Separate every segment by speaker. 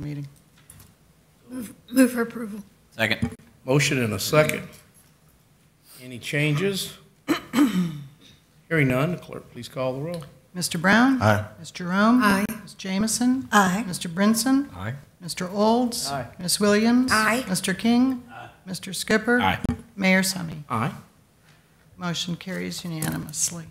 Speaker 1: meeting.
Speaker 2: Move for approval.
Speaker 3: Second.
Speaker 4: Motion and a second. Any changes? Hearing none, clerk, please call the roll.
Speaker 1: Mr. Brown?
Speaker 3: Aye.
Speaker 1: Ms. Jerome?
Speaker 2: Aye.
Speaker 1: Ms. Jamison?
Speaker 2: Aye.
Speaker 1: Mr. Brinson?
Speaker 3: Aye.
Speaker 1: Mr. Olds?
Speaker 4: Aye.
Speaker 1: Ms. Williams?
Speaker 2: Aye.
Speaker 1: Mr. King? Mr. Skipper?
Speaker 3: Aye.
Speaker 1: Mayor Summy.
Speaker 4: Aye.
Speaker 1: Motion carries unanimously.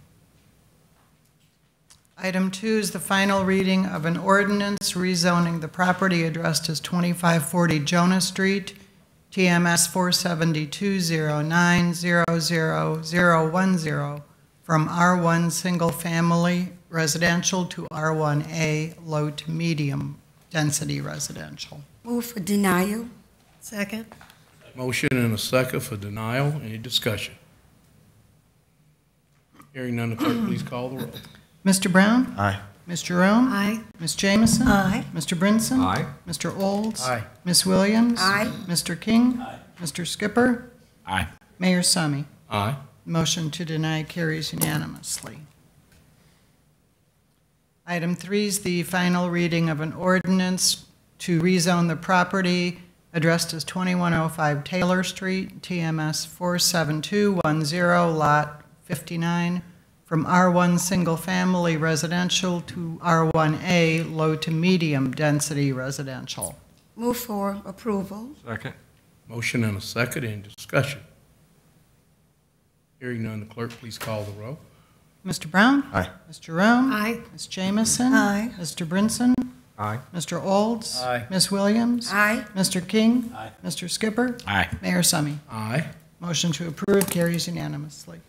Speaker 1: Item two is the final reading of an ordinance rezoning the property addressed as 2540 Jonah Street, TMS 47209000010, from R1 Single Family Residential to R1A Low to Medium Density Residential.
Speaker 5: Move for denial.
Speaker 2: Second.
Speaker 4: Motion and a second for denial. Any discussion? Hearing none, clerk, please call the roll.
Speaker 1: Mr. Brown?
Speaker 3: Aye.
Speaker 1: Ms. Jerome?
Speaker 2: Aye.
Speaker 1: Ms. Jamison?
Speaker 2: Aye.
Speaker 1: Mr. Brinson?
Speaker 3: Aye.
Speaker 1: Mr. Olds?
Speaker 4: Aye.
Speaker 1: Ms. Williams?
Speaker 5: Aye.
Speaker 1: Mr. King? Mr. Skipper?
Speaker 3: Aye.
Speaker 1: Mayor Summy?
Speaker 4: Aye.
Speaker 1: Motion to deny carries unanimously. Item three is the final reading of an ordinance to rezone the property addressed as 2105 Taylor Street, TMS 47210, Lot 59, from R1 Single Family Residential to R1A Low to Medium Density Residential.
Speaker 5: Move for approval.
Speaker 3: Second.
Speaker 4: Motion and a second. Any discussion? Hearing none, clerk, please call the roll.
Speaker 1: Mr. Brown?
Speaker 3: Aye.
Speaker 1: Ms. Jerome?
Speaker 2: Aye.
Speaker 1: Ms. Jamison?
Speaker 2: Aye.
Speaker 1: Mr. Brinson?
Speaker 3: Aye.
Speaker 1: Mr. Olds?
Speaker 4: Aye.
Speaker 1: Ms. Williams?
Speaker 5: Aye.
Speaker 1: Mr. King? Mr. Skipper?
Speaker 3: Aye.
Speaker 1: Mayor Summy?
Speaker 4: Aye.
Speaker 1: Motion to approve carries unanimously.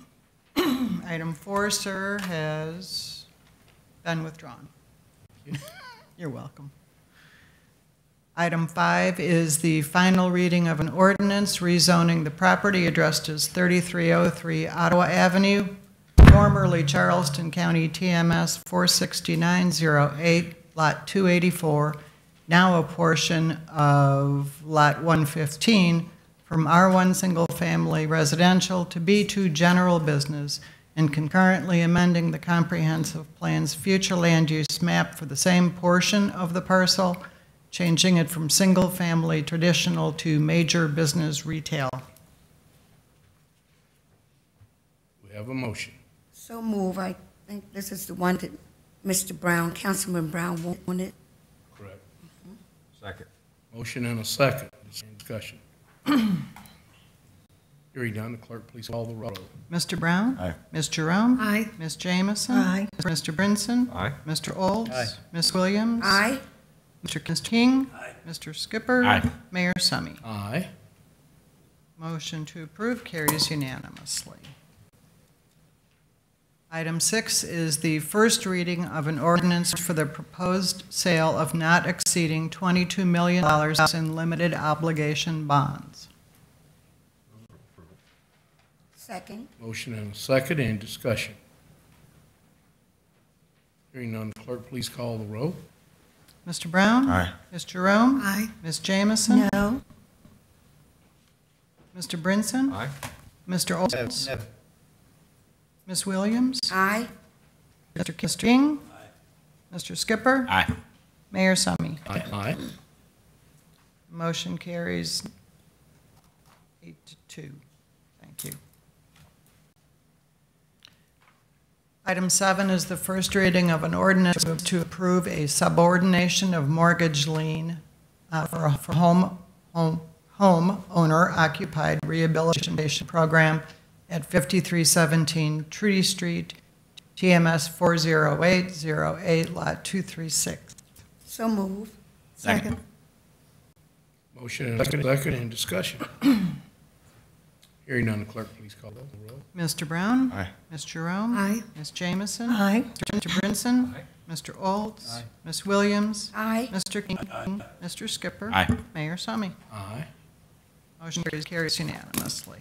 Speaker 1: Item four, sir, has been withdrawn. You're welcome. Item five is the final reading of an ordinance rezoning the property addressed as 3303 Ottawa Avenue, formerly Charleston County TMS 46908, Lot 284, now a portion of Lot 115, from R1 Single Family Residential to B2 General Business, and concurrently amending the comprehensive plan's future land use map for the same portion of the parcel, changing it from single-family traditional to major business retail.
Speaker 4: We have a motion.
Speaker 5: So move. I think this is the one that Mr. Brown, Councilman Brown wanted.
Speaker 4: Correct.
Speaker 3: Second.
Speaker 4: Motion and a second. Any discussion? Hearing none, clerk, please call the roll.
Speaker 1: Mr. Brown?
Speaker 3: Aye.
Speaker 1: Ms. Jerome?
Speaker 2: Aye.
Speaker 1: Ms. Jamison?
Speaker 2: Aye.
Speaker 1: Mr. Brinson?
Speaker 3: Aye.
Speaker 1: Mr. Olds?
Speaker 4: Aye.
Speaker 1: Ms. Williams?
Speaker 5: Aye.
Speaker 1: Mr. King? Mr. Skipper?
Speaker 3: Aye.
Speaker 1: Mayor Summy?
Speaker 4: Aye.
Speaker 1: Motion to approve carries unanimously. Item six is the first reading of an ordinance for the proposed sale of not exceeding $22 million in limited obligation bonds.
Speaker 5: Second.
Speaker 4: Motion and a second, any discussion? Hearing none, clerk, please call the roll.
Speaker 1: Mr. Brown?
Speaker 3: Aye.
Speaker 1: Ms. Jerome?
Speaker 2: Aye.
Speaker 1: Ms. Jamison?
Speaker 2: No.
Speaker 1: Mr. Brinson?
Speaker 3: Aye.
Speaker 1: Mr. Olds? Ms. Williams?
Speaker 5: Aye.
Speaker 1: Mr. King? Mr. Skipper?
Speaker 3: Aye.
Speaker 1: Mayor Summy?
Speaker 4: Aye. Aye.
Speaker 1: Motion carries eight to two. Thank you. Item seven is the first reading of an ordinance to approve a subordination of mortgage lien uh, for for home, home, home owner occupied rehabilitation program at 5317 Trudy Street, TMS 40808, Lot 236.
Speaker 5: So move.
Speaker 3: Second.
Speaker 4: Motion and a second, any discussion? Hearing none, clerk, please call the roll.
Speaker 1: Mr. Brown?
Speaker 3: Aye.
Speaker 1: Ms. Jerome?
Speaker 2: Aye.
Speaker 1: Ms. Jamison?
Speaker 2: Aye.
Speaker 1: Mr. Brinson?
Speaker 3: Aye.
Speaker 1: Mr. Olds? Ms. Williams?
Speaker 5: Aye.
Speaker 1: Mr. King? Mr. Skipper?
Speaker 3: Aye.
Speaker 1: Mayor Summy?
Speaker 4: Aye.
Speaker 1: Motion carries- carries unanimously.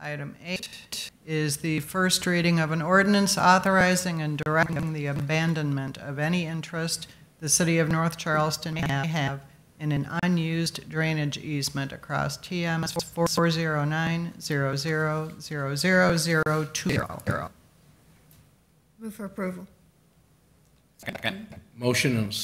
Speaker 1: Item eight is the first reading of an ordinance authorizing and directing the abandonment of any interest the city of North Charleston may have in an unused drainage easement across TMS 409000020.
Speaker 2: Move for approval.
Speaker 3: Second.
Speaker 4: Motion and a